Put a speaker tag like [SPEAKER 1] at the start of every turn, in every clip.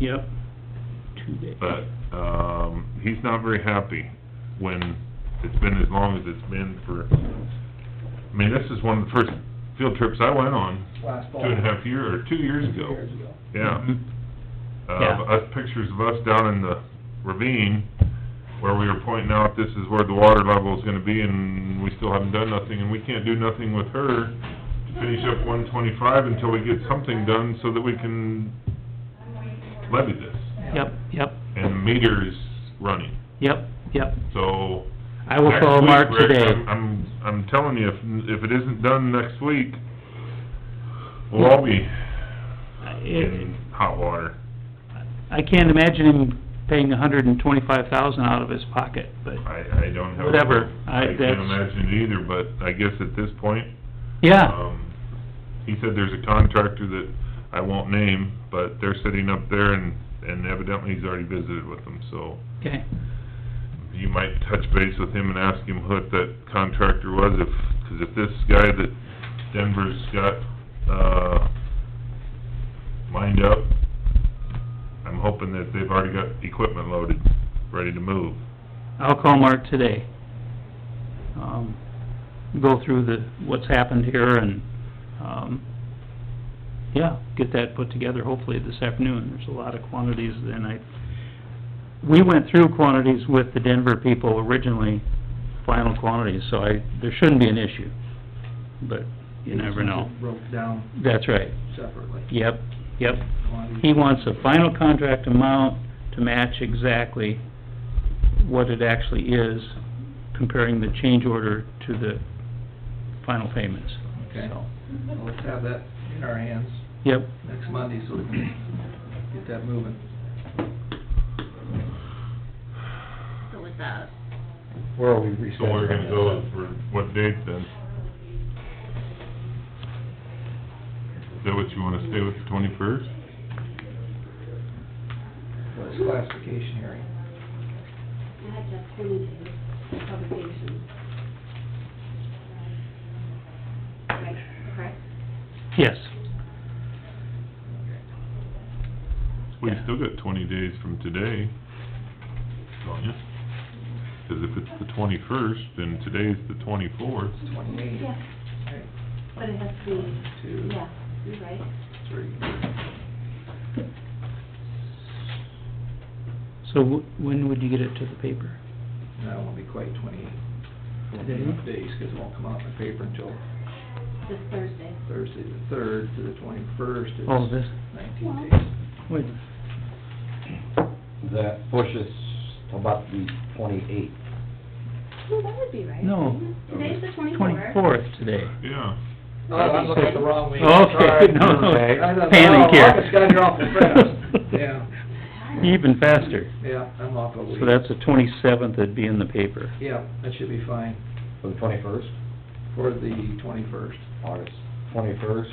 [SPEAKER 1] Yep. Two days.
[SPEAKER 2] but, um, he's not very happy when it's been as long as it's been for, I mean, this is one of the first field trips I went on,
[SPEAKER 3] last
[SPEAKER 2] two
[SPEAKER 3] fall.
[SPEAKER 2] and a half year, or two years
[SPEAKER 3] Two
[SPEAKER 2] ago,
[SPEAKER 3] years ago.
[SPEAKER 2] yeah.
[SPEAKER 1] Mhm.
[SPEAKER 2] Uh,
[SPEAKER 1] Yeah.
[SPEAKER 2] us, pictures of us down in the ravine, where we were pointing out this is where the water level's gonna be, and we still haven't done nothing, and we can't do nothing with her to finish up one twenty-five until we get something done so that we can levy this,
[SPEAKER 1] Yep, yep,
[SPEAKER 2] and the meter's running,
[SPEAKER 1] yep, yep.
[SPEAKER 2] so...
[SPEAKER 1] I will
[SPEAKER 2] next
[SPEAKER 1] call
[SPEAKER 2] week,
[SPEAKER 1] Mark
[SPEAKER 2] Rick,
[SPEAKER 1] today.
[SPEAKER 2] I'm- I'm, I'm telling you, if, if it isn't done next week, we'll all be
[SPEAKER 1] It-
[SPEAKER 2] in hot water.
[SPEAKER 1] I can't imagine him paying a hundred and twenty-five thousand out of his pocket, but,
[SPEAKER 2] I, I don't have...
[SPEAKER 1] Whatever, I-
[SPEAKER 2] can't
[SPEAKER 1] that's-
[SPEAKER 2] imagine it either, but I guess at this point,
[SPEAKER 1] yeah,
[SPEAKER 2] um, he said there's a contractor that I won't name, but they're sitting up there and, and evidently he's already visited with them, so
[SPEAKER 1] okay,
[SPEAKER 2] you might touch base with him and ask him what that contractor was, if, 'cause if this guy that Denver's got, uh, lined up, I'm hoping that they've already got equipment loaded, ready to move.
[SPEAKER 1] I'll call Mark today. Um, go through the, what's happened here and, um, yeah, get that put together hopefully this afternoon. There's a lot of quantities and I, we went through quantities with the Denver people originally, final quantities, so I, there shouldn't be an issue. But you never know.
[SPEAKER 3] Broke down
[SPEAKER 1] That's right.
[SPEAKER 3] separately.
[SPEAKER 1] Yep, yep. He wants a final contract amount to match exactly what it actually is, comparing the change order to the final payments.
[SPEAKER 3] Okay.
[SPEAKER 1] So,
[SPEAKER 3] Well, Let's have that in our hands
[SPEAKER 1] Yep,
[SPEAKER 3] next Monday so we can get that moving.
[SPEAKER 4] So with that,
[SPEAKER 3] Where are we resetting?
[SPEAKER 2] So we're gonna go for what date then? Is that what you wanna stay with, the twenty-first?
[SPEAKER 3] Well, it's classification hearing.
[SPEAKER 4] I had just pointed to the publication. Right, correct?
[SPEAKER 1] yes,
[SPEAKER 2] We
[SPEAKER 1] Yeah.
[SPEAKER 2] still got twenty days from today, don't you? 'Cause if it's the twenty-first, then today's the twenty-fourth.
[SPEAKER 3] It's twenty-eight.
[SPEAKER 4] Yeah,
[SPEAKER 3] Okay,
[SPEAKER 4] but it has to
[SPEAKER 3] One,
[SPEAKER 4] be,
[SPEAKER 3] two,
[SPEAKER 4] yeah, you're right.
[SPEAKER 3] three.
[SPEAKER 1] so wh- when would you get it to the paper?
[SPEAKER 3] No, it won't be quite twenty-eight. Twenty-eight days, 'cause it won't come out in the paper until
[SPEAKER 4] This Thursday.
[SPEAKER 3] Thursday the third to the twenty-first.
[SPEAKER 1] Oh, this,
[SPEAKER 3] Nineteen days.
[SPEAKER 1] wait,
[SPEAKER 5] that pushes to about the twenty-eighth.
[SPEAKER 4] No, that would be right.
[SPEAKER 1] No.
[SPEAKER 4] isn't it? Today's the twenty-fourth.
[SPEAKER 1] twenty-fourth today.
[SPEAKER 2] Yeah,
[SPEAKER 3] Oh, I'm looking at the wrong week.
[SPEAKER 1] Okay,
[SPEAKER 3] Sorry.
[SPEAKER 1] no, no,
[SPEAKER 5] Okay.
[SPEAKER 3] I thought,
[SPEAKER 1] panic
[SPEAKER 3] oh,
[SPEAKER 1] here.
[SPEAKER 3] August got here awful fast. Yeah,
[SPEAKER 1] Even faster,
[SPEAKER 3] yeah, I'm off a week.
[SPEAKER 1] so that's the twenty-seventh that'd be in the paper.
[SPEAKER 3] Yeah, that should be fine
[SPEAKER 5] For the twenty-first,
[SPEAKER 3] for the twenty-first.
[SPEAKER 5] August twenty-first,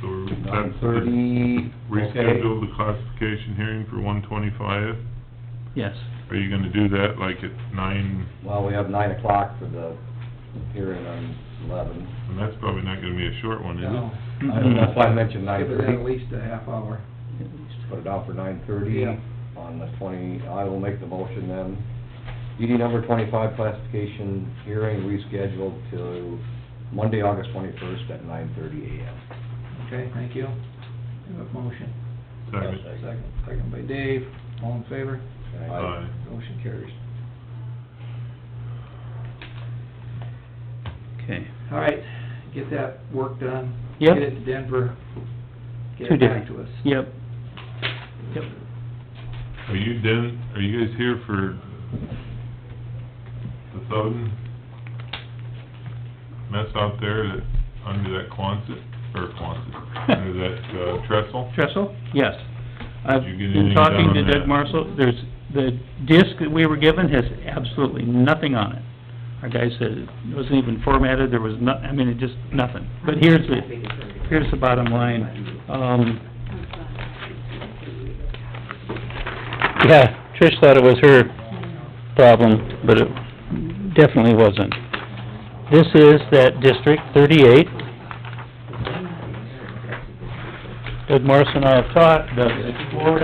[SPEAKER 2] so we're-
[SPEAKER 5] nine
[SPEAKER 2] that's the,
[SPEAKER 5] thirty, okay.
[SPEAKER 2] reschedule the classification hearing for one twenty-five.
[SPEAKER 1] Yes,
[SPEAKER 2] Are you gonna do that like at nine,
[SPEAKER 5] Well, we have nine o'clock for the hearing on eleven.
[SPEAKER 2] and that's probably not gonna be a short one, is it?
[SPEAKER 5] I don't know if I mentioned nine
[SPEAKER 3] Mm-hmm. uh, Give it at
[SPEAKER 5] thirty,
[SPEAKER 3] least a half hour.
[SPEAKER 5] put it out for nine thirty
[SPEAKER 3] Yeah.
[SPEAKER 5] on the twenty, I will make the motion then. DD number twenty-five classification hearing rescheduled to Monday, August twenty-first at nine thirty AM.
[SPEAKER 3] Okay, thank you. You have a motion.
[SPEAKER 2] Second.
[SPEAKER 3] Second, second by Dave. All in favor?
[SPEAKER 2] Aye.
[SPEAKER 3] Motion carries.
[SPEAKER 1] okay.
[SPEAKER 3] All right, get that work done.
[SPEAKER 1] Yep.
[SPEAKER 3] Get it to Denver. Get
[SPEAKER 1] Two
[SPEAKER 3] it
[SPEAKER 1] different-
[SPEAKER 3] back to us.
[SPEAKER 1] Yep, yep.
[SPEAKER 2] Are you Den, are you guys here for the Thoden mess out there that, under that Quonset, or Quonset, under that uh, trestle?
[SPEAKER 1] Trestle? Yes. I've
[SPEAKER 2] Did you get
[SPEAKER 1] been
[SPEAKER 2] anything
[SPEAKER 1] talking
[SPEAKER 2] done
[SPEAKER 1] to
[SPEAKER 2] on
[SPEAKER 1] Doug
[SPEAKER 2] that?
[SPEAKER 1] Marshall, there's, the disc that we were given has absolutely nothing on it. Our guy said it wasn't even formatted, there was no, I mean, it just, nothing. But here's the, here's the bottom line, um...
[SPEAKER 4] Oh,
[SPEAKER 1] Yeah, Trish thought it was her problem, but it definitely wasn't. This is that District thirty-eight. as Marcy and I have taught, the the board